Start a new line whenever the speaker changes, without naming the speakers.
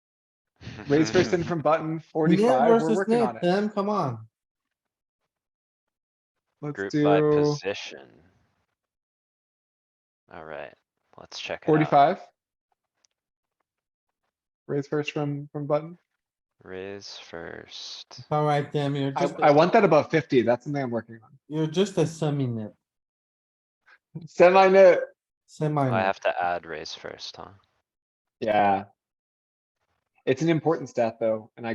Raise first in from button
Net
forty-five, we're
versus
working on
net,
it.
man, come on.
Let's
Group by
do
position. Alright, let's check it out.
forty-five. Raise first from, from button.
Raise first. Oh,
Alright, Tim, you're
I,
just,
I
a-
want that above fifty, that's something I'm working on.
you're just a semi net,
Semi-net,
semi.
I
net.
have to add raise first, huh?
yeah. It's an important stat though, and I